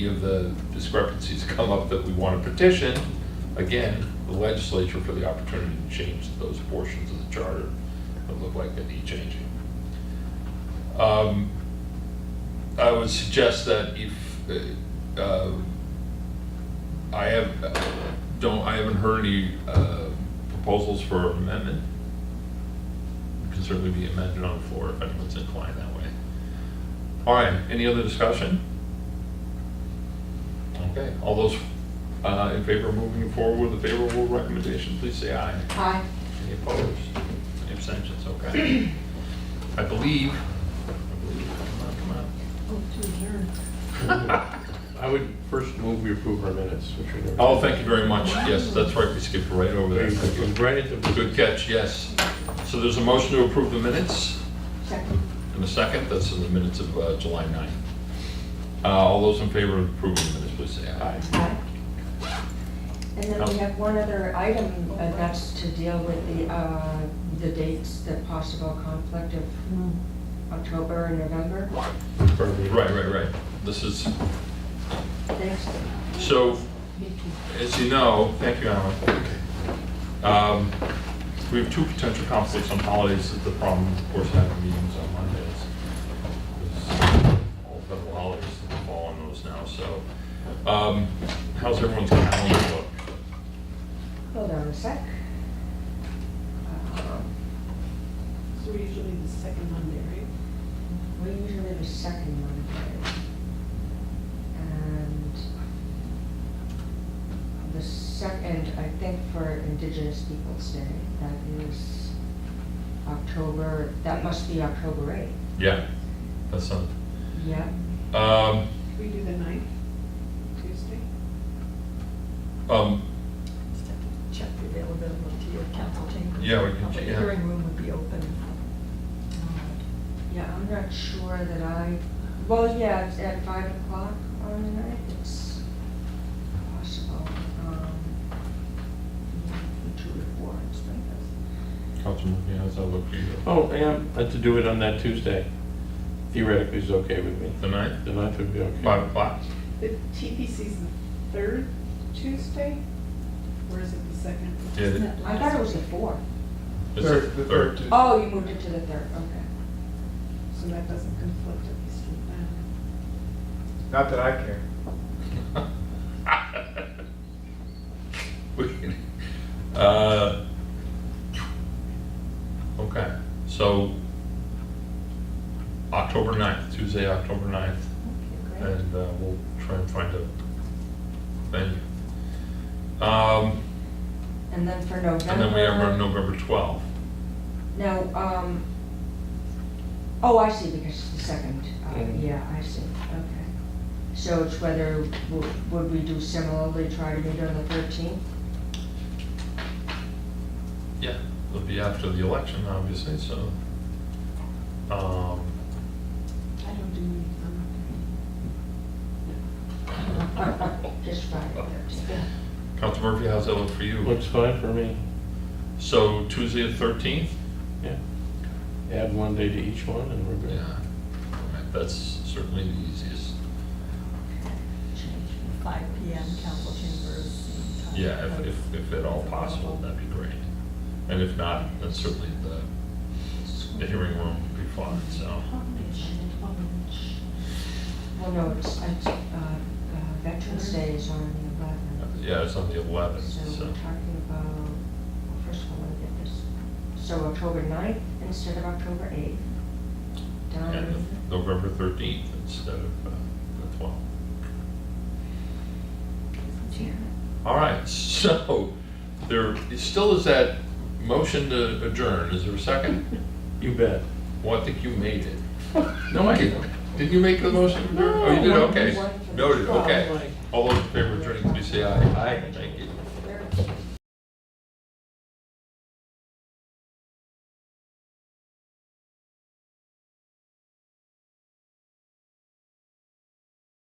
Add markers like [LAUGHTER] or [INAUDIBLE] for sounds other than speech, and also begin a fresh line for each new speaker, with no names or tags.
of the discrepancies come up that we want to petition, again, the legislature for the opportunity to change those portions of the charter that look like they need changing. Um, I would suggest that if, uh, um, I have, don't, I haven't heard any uh, proposals for amendment. It Can certainly be amended on the floor if anyone's inclined that way. All right, any other discussion? Okay, all those uh, in favor of moving forward with a favorable recommendation, please say aye.
Aye.
Any opposed? Any abstentions? Okay. I believe, I believe, come on, come on.
Oh,
I would first move we approve our minutes, which we never.
Oh, thank you very much. Yes, that's right, we skipped right over
We-
that. Thank
we-
you.
Right at the.
Good catch, yes. So there's a motion to approve the minutes
Second.
and a second. That's in the minutes of uh, July 9th. Uh, All those in favor of approving the minutes, please say aye.
Aye. And then we have one other item, and that's to deal with the, uh, the dates, the possible conflict of October and November.
Right, right, right. This is,
Thanks.
so, as you know, thank you, Alan. Um, We have two potential conflicts on holidays. That's the problem, of course, having meetings on Mondays. There's All federal holidays that fall on those now, so. um, How's everyone's calendar look?
Hold on a sec. Uh,
So we're usually the second Monday, right?
We usually the second Monday. And the second, I think for Indigenous Peoples' Day, that is October, that must be October eighth.
Yeah, that's something.
Yeah,
Um,
Could we do the ninth, Tuesday?
um,
Just have to check the availability of your council chamber.
Yeah, we can
Public
check, yeah.
hearing room would be open. um,
yeah, I'm not sure that I, well, yeah, it's at five o'clock on the night, it's possible. um, Two to four, it's like
Councilman, yeah, how's that look for you?
Oh, yeah, uh, to do it on that Tuesday theoretically is okay with me.
The ninth,
The ninth would be okay.
five o'clock?
The TPC's the third Tuesday, or is it the second?
Yeah, the-
that. I thought it was the fourth.
it's the third.
Oh, you moved it to the third, okay.
So that doesn't conflict at least with that.
Not that I care.
We can- uh, Okay, so October 9th, Tuesday, October 9th, and uh, we'll try and find a venue. Um,
And then for November.
And then we have our November 12th.
Now, um, oh, I see, because it's the second, uh,
Mhm.
yeah, I see, okay. So it's whether, w- would we do similarly, try to meet on the thirteenth?
Yeah, it'll be after the election, obviously, so. um,
I don't do any,
Just Friday, thirteenth.
Council Murphy, how's that look for you?
Looks fine for me,
So Tuesday the 13th?
yeah. Add one day to each one and we're good.
Yeah, All right, that's certainly the easiest.
Five P M, council chamber is the time.
Yeah, if, if, if at all possible, that'd be great. And if not, then certainly the, the hearing room would be fine, so.
Well, no, it's, it's, uh, uh, Veterans Day is on the eleventh,
Yeah, it's on the 11th,
so
so.
we're talking about, well, first of all, let me get this. So October ninth instead of October eighth.
um,
And
Down,
November 13th instead of uh, the 12th. All right, [LAUGHS] so there still is that motion to adjourn. Is there a second?
You bet.
Well, I think you made it.
No, I didn't.
Did you make the motion? to adjourn? Oh, you did,
No.
okay. Noted, okay.
Like,
All those in favor of adjourning, please say aye. Aye. Thank you.